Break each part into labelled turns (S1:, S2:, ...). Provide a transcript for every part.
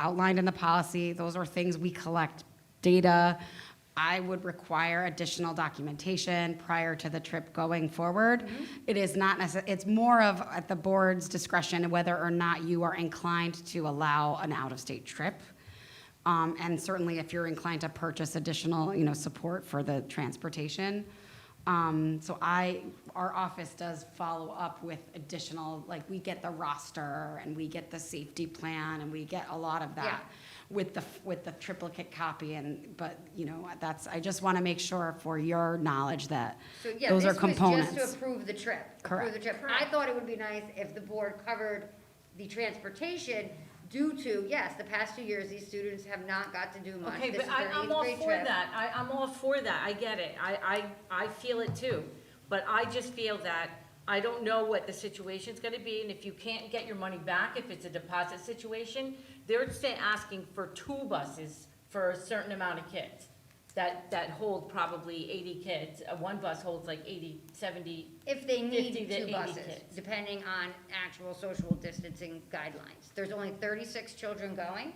S1: outlined in the policy. Those are things we collect data. I would require additional documentation prior to the trip going forward. It is not necess, it's more of at the board's discretion whether or not you are inclined to allow an out-of-state trip. Um, and certainly if you're inclined to purchase additional, you know, support for the transportation. Um, so I, our office does follow up with additional, like, we get the roster and we get the safety plan and we get a lot of that with the, with the triplicate copy and, but, you know, that's, I just want to make sure for your knowledge that
S2: So, yeah,
S1: those are
S2: this was just to
S1: components.
S2: approve the trip. Approve
S1: Correct.
S2: the trip. I thought it would be nice if the board covered the transportation due to, yes, the past two years, these students have not got to do much.
S3: Okay,
S2: This
S3: but
S2: is
S3: I,
S2: their
S3: I'm
S2: eighth
S3: all
S2: grade
S3: for
S2: trip.
S3: that, I, I'm all for that, I get it, I, I, I feel it too. But I just feel that, I don't know what the situation's gonna be, and if you can't get your money back, if it's a deposit situation, they're saying, asking for two buses for a certain amount of kids. That, that hold probably eighty kids, Uh, one bus holds like 80, 70.
S2: If they
S3: 50
S2: need
S3: to
S2: two
S3: 80
S2: buses,
S3: kids.
S2: depending on actual social distancing guidelines. There's only thirty-six children going.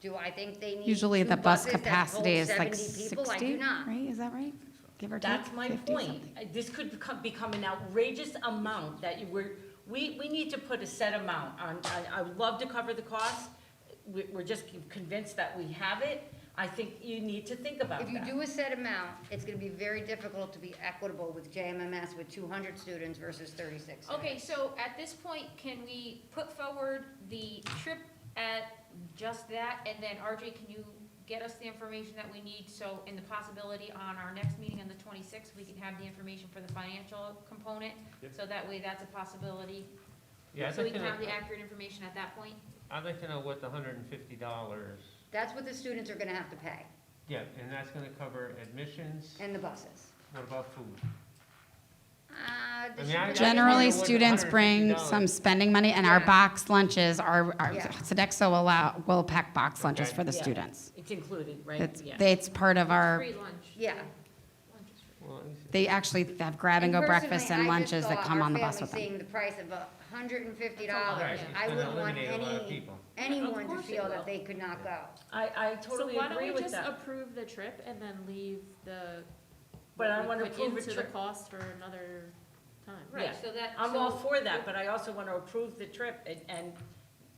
S2: Do I think they need
S1: Usually
S2: two
S1: the bus
S2: buses that
S1: capacity
S2: hold
S1: is like
S2: 70 people? I do
S1: sixty,
S2: not.
S1: right? Is that right? Give or take?
S3: That's my
S1: 50
S3: point.
S1: something.
S3: Uh, This could become, become an outrageous amount that you were, we, we need to put a set amount on, I, I would love to cover the cost. We, we're just convinced that we have it. I think you need to think about
S2: If you
S3: that.
S2: do a set amount, it's gonna be very difficult to be equitable with JMMS with two hundred students versus thirty-six.
S4: Okay, so at this point, can we put forward the trip at just that? And then RJ, can you get us the information that we need? So in the possibility on our next meeting on the twenty-sixth, we can have the information for the financial component?
S5: Yep.
S4: So that way that's a possibility.
S5: Yeah, I'd
S4: So we
S5: like
S4: can
S5: to know,
S4: have the accurate information at that point?
S5: I'd like to know what the hundred and fifty dollars,
S2: That's what the students are gonna have to pay,
S5: yeah, and that's gonna cover admissions,
S2: and the buses.
S5: what about food?
S2: Uh, the
S5: I mean, I-
S2: students-
S1: Generally,
S5: Yeah, what,
S1: students bring
S5: $150?
S1: some spending money, and our
S2: Yeah.
S1: box lunches are, are-
S2: Yeah.
S1: Sodexo allow, will pack box lunches
S5: Okay.
S1: for the
S3: Yeah.
S1: students.
S3: It's included, right?
S1: It's,
S3: Yeah.
S1: it's part of our,
S4: Free lunch.
S2: Yeah.
S4: Lunch is free.
S5: Well, it's-
S1: they actually have grab-and-go
S2: And personally,
S1: breakfast
S2: I
S1: and
S2: just
S1: lunches that
S2: thought
S1: come
S2: our
S1: on the bus
S2: family
S1: with them.
S2: Seeing the price of a hundred and fifty
S5: Right,
S2: dollars,
S5: it's
S2: I
S5: gonna
S2: wouldn't want
S5: eliminate a lot of
S2: any,
S5: people.
S3: Of
S2: anyone to
S3: course it
S2: feel
S3: will.
S2: that they could not go.
S3: I, I totally
S6: So why
S3: agree
S6: don't we
S3: with
S6: just
S3: that.
S6: approve the trip and then leave the.
S3: But I
S6: we
S3: wanna
S6: put
S3: approve a
S6: Into the
S3: trip.
S6: cost for another time.
S4: Right,
S3: Yeah.
S4: so that.
S3: I'm
S4: so-
S3: all for that, but I also want to approve the trip and, and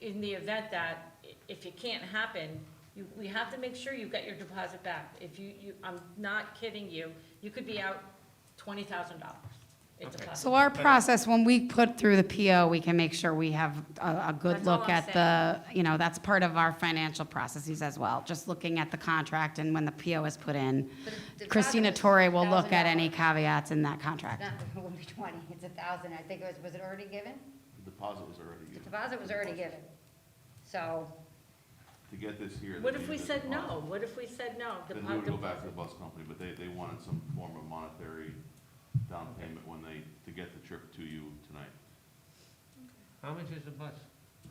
S3: in the event that i- if it can't happen, you, we have to make sure you get your deposit back. If you, you, I'm not kidding you, you could be out twenty thousand dollars. It's a
S5: Okay.
S3: possibility.
S1: So our process, when we put through the PO, we can make sure we have a, a good
S3: That's all
S1: look
S3: I'm
S1: at the, you know, that's part of our financial processes as well. Just looking at the contract and when the PO is put in.
S2: But the deposit
S1: Christina
S2: was
S1: Torre will look at any
S2: $1,000.
S1: caveats in that contract.
S2: Not, it won't be twenty, it's a thousand, I think it was, was it already given?
S7: The deposit was already
S2: The
S7: given.
S2: deposit was already given. So,
S7: To get this here.
S3: What
S7: they
S3: if we
S7: needed a
S3: said
S7: deposit.
S3: no? What if we said no? The
S7: Then
S3: po-
S7: we would
S3: the-
S7: go back to the bus company, but they, they wanted some form of monetary down payment when they, to get the trip to you tonight.
S5: How much is a bus?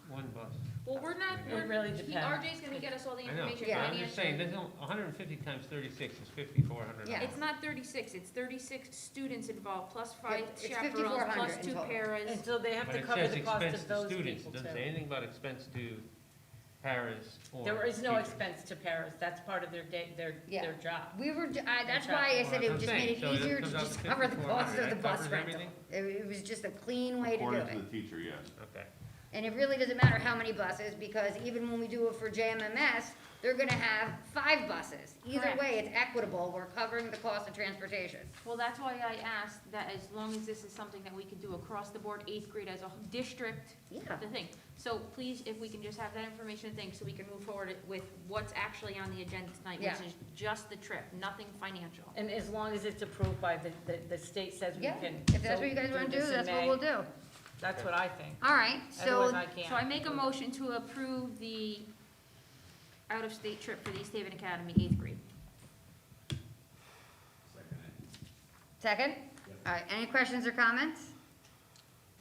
S5: One bus?
S4: Well, we're not,
S3: It
S4: we're,
S3: really
S4: he-
S3: depends.
S4: RJ's gonna get us all the
S5: I know,
S4: information.
S5: but I'm
S4: financial.
S5: just saying, there's no, hundred and fifty times thirty-six is fifty-four hundred
S2: Yeah.
S5: dollars.
S4: It's not thirty-six, it's thirty-six students involved, plus five
S2: it's
S4: chaperones,
S2: 5,400
S4: plus
S2: in
S4: two
S2: total.
S4: paras.
S3: And so they have
S5: But
S3: to
S5: it
S3: cover
S5: says
S3: the cost
S5: expense
S3: of
S5: to
S3: those
S5: students,
S3: people
S5: it
S3: too.
S5: doesn't say anything about expense to parents or.
S3: There is no
S5: teachers.
S3: expense to Paris. That's part of their day, their,
S2: Yeah.
S3: their job.
S2: we were, ju- I, that's why I
S5: Well,
S2: said
S5: that's
S2: it
S5: what
S2: just
S5: I'm
S2: made it
S5: saying. So it
S2: easier to
S5: comes out
S2: just
S5: to
S2: cover the cost
S5: 5,400.
S2: of the
S5: That
S2: bus
S5: covers
S2: rental.
S5: everything?
S2: It, it was just a clean way to do
S7: According to
S2: it.
S7: the teacher, yes.
S5: Okay.
S2: And it really doesn't matter how many buses, because even when we do it for JMMS, they're gonna have five buses. Either
S4: Correct.
S2: way, it's equitable, we're covering the cost of transportation.
S4: Well, that's why I asked that as long as this is something that we can do across the board, eighth grade as a whole district,
S2: Yeah.
S4: the thing. So please, if we can just have that information thing, so we can move forward with what's actually on the agenda tonight,
S2: Yeah.
S4: which is just the trip, nothing financial.
S3: And as long as it's approved by the, the, the state says we
S2: Yeah,
S3: can.
S2: if that's
S3: so
S2: what you guys wanna do,
S3: this in
S2: that's what
S3: May.
S2: we'll do.
S3: That's what I think.
S2: All right,
S3: Otherwise,
S2: so,
S3: I can't.
S4: So I make a motion to approve the out-of-state trip for the East Haven Academy, eighth grade.
S2: second? All right, any questions or comments?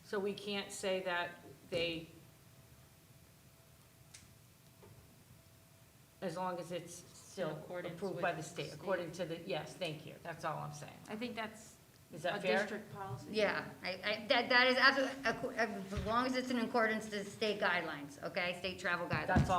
S3: So we can't say that they, as long as it's still
S6: accordance
S3: approved
S6: with
S3: by the state,
S6: the state.
S3: according to the, yes, thank you, that's all I'm saying.
S4: I think that's
S3: Is
S4: a
S3: that fair?
S4: district policy.
S2: Yeah, I, I, that, that is absolutely, as long as it's in accordance to state guidelines, okay, state travel guidelines.
S3: That's all